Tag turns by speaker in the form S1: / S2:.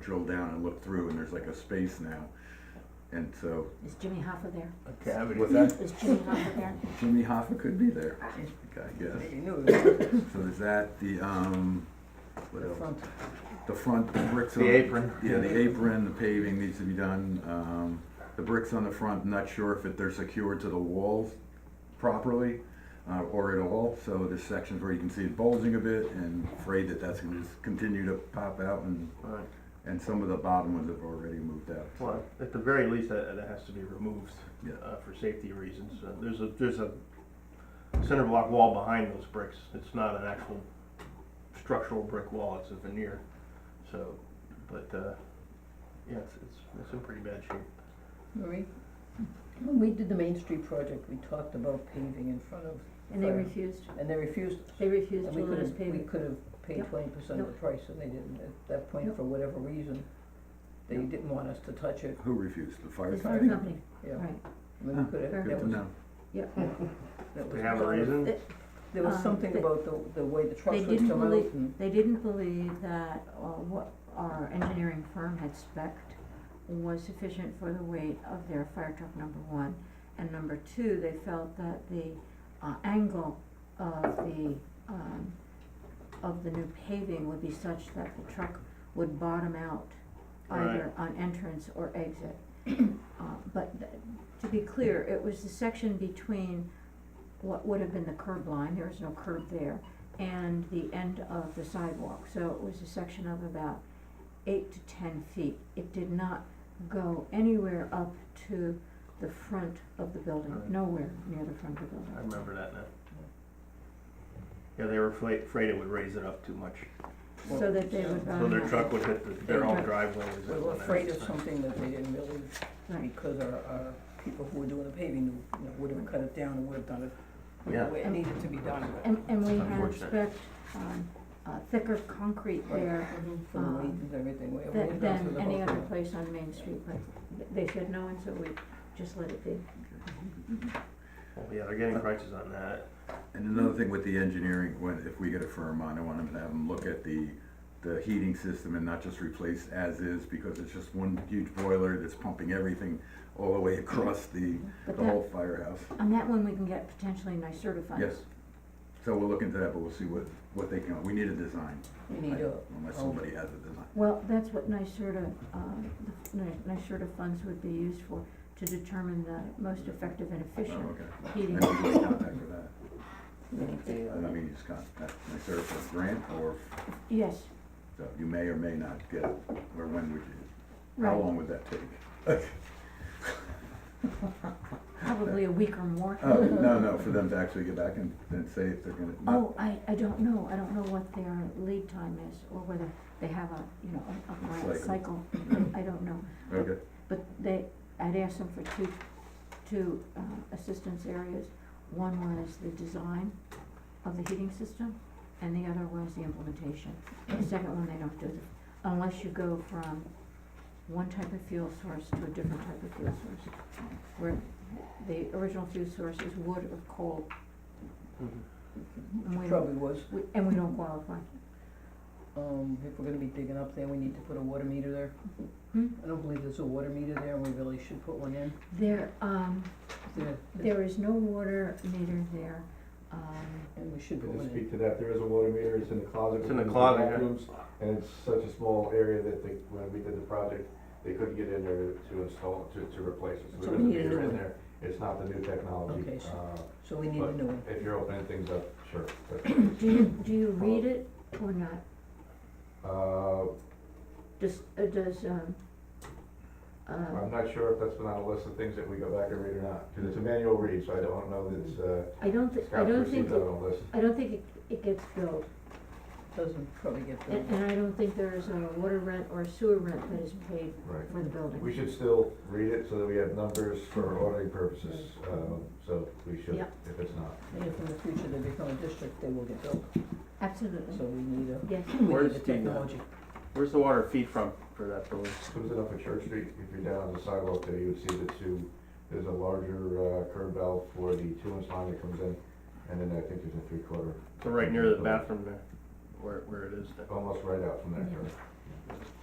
S1: drill down and look through, and there's like a space now. And so
S2: Is Jimmy Hoffa there?
S3: a cavity.
S1: What's that?
S2: Is Jimmy Hoffa there?
S1: Jimmy Hoffa could be there, I guess.
S3: You knew it.
S1: So there's that, the, um, what
S3: The
S1: else?
S3: front.
S1: The front, the bricks on.
S4: The apron.
S1: Yeah, the apron, the paving needs to be done. Um, the bricks on the front, not sure if it- they're secured to the walls properly, uh, or at all. So there's sections where you can see it bulging a bit and afraid that that's gonna just continue to pop out and,
S4: Right.
S1: and some of the bottom ones have already moved out. so.
S4: Well, at the very least, that, that has to be removed
S1: Yeah.
S4: uh, for safety reasons. Uh, There's a, there's a center block wall behind those bricks. It's not an actual structural brick wall, it's a veneer. So, but, uh, yeah, it's, it's, it's in pretty bad shape.
S3: Marie, when we did the Main Street project, we talked about paving in front of,
S2: And they
S3: Fire.
S2: refused,
S3: and they refused.
S2: they refused
S3: And
S2: to
S3: we
S2: let
S3: could
S2: us
S3: have,
S2: pave
S3: we
S2: it.
S3: could have paid
S2: Yep.
S3: twenty percent of the
S2: Nope.
S3: price, and they didn't, at that point,
S2: Nope.
S3: for whatever reason, they didn't want us to touch it,
S1: Who refused? The fire
S2: It's for a
S1: company?
S2: company,
S3: yeah.
S2: right,
S3: I mean,
S1: Huh,
S3: we could have,
S1: Good
S3: that
S1: to
S3: was,
S1: know.
S2: yep.
S3: that
S4: They
S3: was
S4: have a
S3: part of-
S4: reason?
S3: There was
S2: Um,
S3: something
S2: they-
S3: about the, the way the trucks
S2: they
S3: would
S2: didn't
S3: come out
S2: believe-
S3: and,
S2: They didn't believe that uh, what our engineering firm had spec'd was sufficient for the weight of their fire truck, number one. And number two, they felt that the uh, angle of the, um, of the new paving would be such that the truck would bottom out either on entrance or exit. Uh, But th- to be clear, it was the section between what would have been the curb line, there was no curb there, and the end of the sidewalk, so it was a section of about eight to ten feet. It did not go anywhere up to the front of the building,
S4: Right.
S2: nowhere near the front of the
S4: I
S2: building.
S4: remember that now. Yeah, they were afraid, afraid it would raise it up too much.
S2: So that they would. uh,
S4: So their
S2: run
S4: truck would hit the- their own driveway. is
S3: we
S4: that
S3: Uh-huh. were
S4: one
S3: afraid of
S4: that's-
S3: something that they didn't really,
S2: Right.
S3: because our, our people who were doing the paving, knew, you know, would have cut it down and would have done it
S4: Yeah.
S3: the way it needed to be done, but.
S2: And, and we had
S4: Unfortunate.
S2: expect, um, uh, thicker concrete
S3: Right.
S2: there
S3: Mhm, For the
S2: um,
S3: weight and everything, we, we
S2: than,
S3: did that for
S2: than
S3: the whole
S2: any other
S3: thing.
S2: place on Main Street, but th- they said no, and so we just let it be.
S4: Well, Yeah, they're getting prices on that.
S1: And another thing with the engineering, when, if we get a firm on, I want them to have them look at the, the heating system and not just replace as is, because it's just one huge boiler that's pumping everything all the way across the,
S2: But
S1: the
S2: that,
S1: whole firehouse.
S2: on that one, we can get potentially nice certified.
S1: Yes. So we'll look into that, but we'll see what, what they can, we need a design,
S3: We need a,
S1: unless somebody has a design.
S2: Well, that's what NYSERDA, um, the f- Ni- NYSERDA funds would be used for, to determine the most effective and
S1: Oh,
S2: efficient
S1: okay.
S2: heating.
S1: And we can contact for that.
S4: They,
S1: And I
S4: uh,
S1: mean, you just contact, my serve for grant, or,
S2: Yes,
S1: so you may or may not get, it, or when would you, how
S2: right,
S1: long would that take?
S2: probably a week or more.
S1: Oh, no, no, for them to actually get back and, and say if they're gonna, not,
S2: Oh, I, I don't know, I don't know what their lead time is, or whether they have a, you know, a, a grant cycle,
S1: Cycle.
S2: I don't know.
S1: okay,
S2: But they, I'd asked them for two, two uh, assistance areas. One was the design of the heating system, and the other was the implementation. The second one, they don't do, unless you go from one type of fuel source to a different type of fuel source. Where the original fuel source is wood or coal,
S4: mhm.
S2: and we don't,
S3: probably was,
S2: we- and we don't qualify.
S3: um, if we're gonna be digging up there, we need to put a water meter there.
S2: Hmm?
S3: I don't believe there's a water meter there, and we really should put one in.
S2: There, um,
S3: There-
S2: there is no water meter there, um,
S3: And we should put
S5: To
S3: one in.
S5: speak to that, there is a water meter, it's in the closet.
S4: It's in the
S5: with
S4: closet, yeah.
S5: bathrooms, And it's such a small area that they, when we did the project, they couldn't get in there to install, to, to replace it.
S3: So
S5: So there
S3: we
S5: is a
S3: need a new
S5: meter in
S3: one.
S5: there. It's not the new
S3: Okay,
S5: technology.
S3: so-
S5: Uh,
S3: So we need a
S5: but-
S3: new one.
S5: If you're opening things up, sure. but,
S2: Do you, do you read it or not?
S5: Uh,
S2: Does, uh, does, um, uh,
S5: I'm not sure if that's been on a list of things that we go back and read or not, because it's a manual read, so I don't know that it's, uh,
S2: I don't thi- I
S5: Scott's
S2: don't think,
S5: received that
S2: it-
S5: on a list.
S2: I don't think it, it gets billed.
S3: Doesn't probably get
S2: And,
S3: filled.
S2: and I don't think there is a water rent or sewer rent that is paid
S5: Right.
S2: for the
S5: We
S2: building.
S5: should still read it so that we have numbers for auditing purposes, um, so we should,
S2: Yep.
S5: if it's not.
S3: And if in the future they become a district, they will get built, so
S2: Absolutely,
S3: we need a,
S2: yes.
S3: we
S4: Where's
S3: need the
S4: the, uh,
S3: technology.
S4: Where's the water feed from for that building?
S5: Comes it up at Church Street, if you're down on the sidewalk there, you would see the two, there's a larger uh, curb valve for the two inch line that comes in, and then I think there's a three quarter,
S4: So right near the bathroom there, where, where it is now.
S5: almost right out from there.
S2: Yeah.
S5: correct?